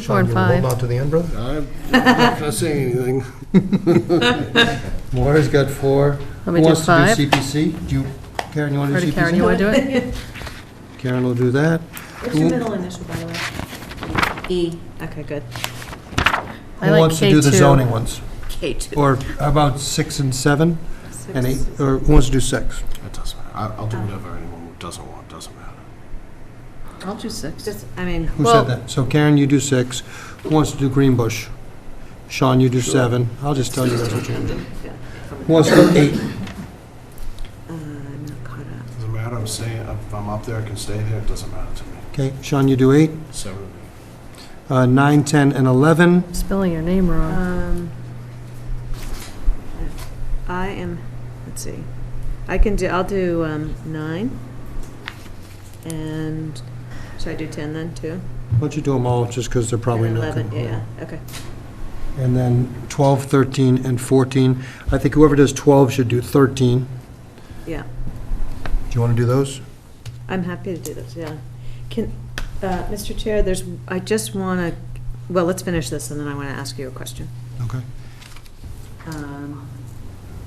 Four and Sean, you five. holding on to the end, brother? I'm not gonna say anything. Maura's got four. Let me do five. Who wants to do CPC? Do you, Karen, you want to do Ready, CPC? Karen, you want to do it? Karen will do that. What's your middle initial, by the way? E. Okay, good. I Who like wants to do the K2. zoning ones? K2. Or how about six and seven? And eight, or who wants to do six? It doesn't matter. I- I'll do whatever anyone doesn't want, doesn't matter. I'll do six. Just, I mean, Who Well- said that? So Karen, you do six. Who wants to do Green Bush? Sean, you do seven. I'll just tell you that's what you're going to do. Who wants to do eight? uh, I'm not caught up. Doesn't matter, I'm staying, if I'm up there, I can stay there, it doesn't matter to me. Okay, Sean, you do eight. Seven, Uh, Nine, 10, and 11. Spelling your name wrong. Um, I am, let's see, I can do, I'll do um, nine, and, should I do 10 then, too? Why don't you do them all, just because they're probably And not. 11, gonna- yeah, okay. And then 12, 13, and 14. I think whoever does 12 should do 13. Yeah, Do you want to do those? I'm happy to do this, yeah. Can, uh, Mr. Chair, there's, I just want to, well, let's finish this, and then I want to ask you a question. Okay. Um,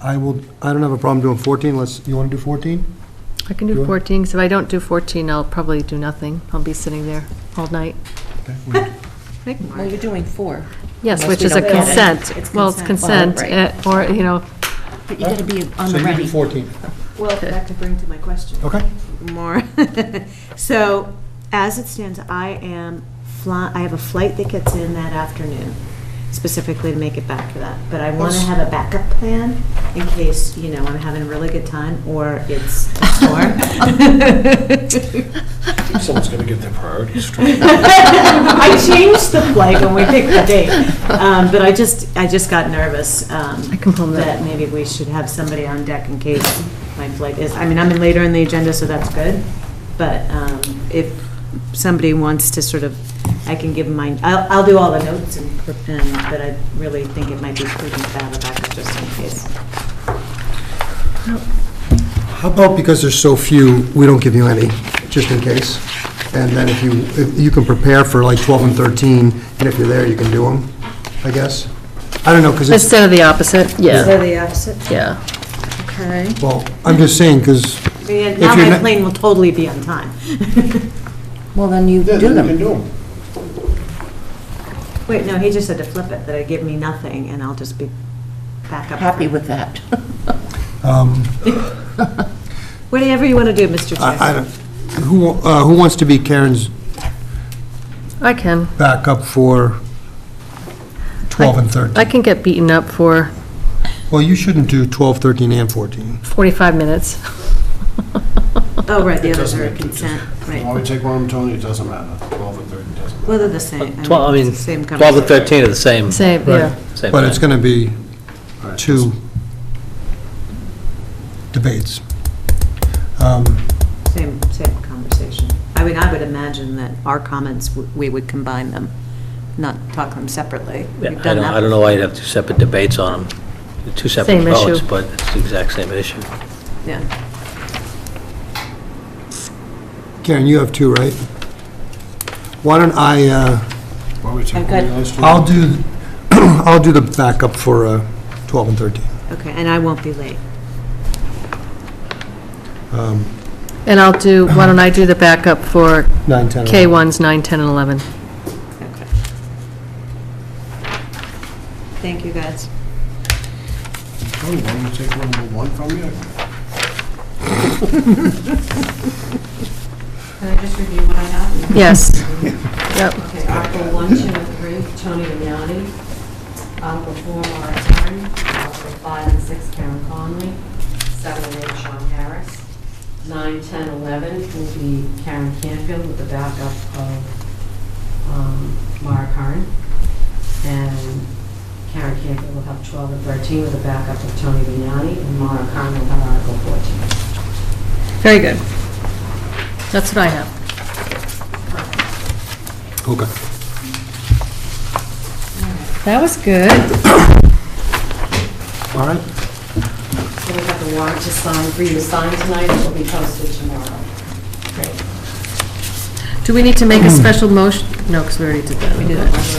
I will, I don't have a problem doing 14, let's, you want to do 14? I can you do want- 14, because if I don't do 14, I'll probably do nothing. I'll be sitting there all night. Okay. we- make Mark. Well, you're doing four. Yes, Unless which we is a don't get it. consent. It's Well, it's consent. consent, Well, eh, or, you know, But you gotta be on So the you do ready. 14, Well, that could bring to my question. okay? More. So, as it stands, I am fly, I have a flight that gets in that afternoon, specifically to make it back for that. But I want to have a backup plan in case, you know, I'm having a really good time or it's a storm. Someone's gonna get their priorities straight. I changed the flight when we picked the date, um, but I just, I just got nervous. um, I can pull that. That maybe we should have somebody on deck in case my flight is, I mean, I'm in later in the agenda, so that's good. But um, if somebody wants to sort of, I can give mine, I'll, I'll do all the notes and, and- but I really think it might be prudent to have a backup just in case. How about because there's so few, we don't give you any, just in case? And then if you, if you can prepare for like 12 and 13, and if you're there, you can do them, I guess? I don't know, because it's, instead of the opposite, yeah, So the opposite? yeah. Okay. well, I'm just saying, because, Yeah, Now you're my not- plane will totally be on time. Well, then you Yeah, do then you them. can do them. Wait, no, he just said to flip it, that it'd give me nothing and I'll just be back up. Happy with that. Whatever you want to do, Mr. Chair. I I don't, who, uh, who wants to be Karen's I can. backup for 12 and 13? I can get beaten up for Well, you shouldn't do 12, 13, and 14. 45 minutes. Oh, right, the It others doesn't are make a consent, Why we right. take one, Tony, it doesn't matter. Twelve and thirteen doesn't matter. Well, they're the same. Tw- Uh, I mean, it's the same 12 and conversation. 13 are the same. Same, yeah. same But it's thing. going to be All right, two debates. Um, Same, same conversation. I mean, I would imagine that our comments, w- we would combine them, not talk them separately. Yeah, We've I done don't- that I don't know why you'd have two separate debates on them, They're two separate Same votes, issue. but it's the exact same issue. before. Yeah. Karen, you have two, right? Why don't I, uh, Why we take one I've got- of those two? I'll do, I'll do the backup for uh, 12 and 13. Okay, and I won't be late. And I'll do, why don't I do the backup for 9, 10, 11. K1s, 9, 10, and 11? Okay. Thank you, guys. Tony, why don't you take one number one from you? Can I just review what I have? Yes. Yep. Okay, Article 1, 2, and 3, Tony Vignani. Article 4, Laura Perry. Article 5 and 6, Karen Conley. 7 and 8, Sean Harris. 9, 10, 11 will be Karen Canfield with the backup of um, Mara Curran. And Karen Canfield will have 12 and 13 with the backup of Tony Vignani, and Mara Curran will have Article 14. Very good. That's what I have. Okay. That was good. All right. So we have the warrant to sign, for you to sign tonight, it will be posted tomorrow. Do we need to make a special motion, No, because we already did that. We did it.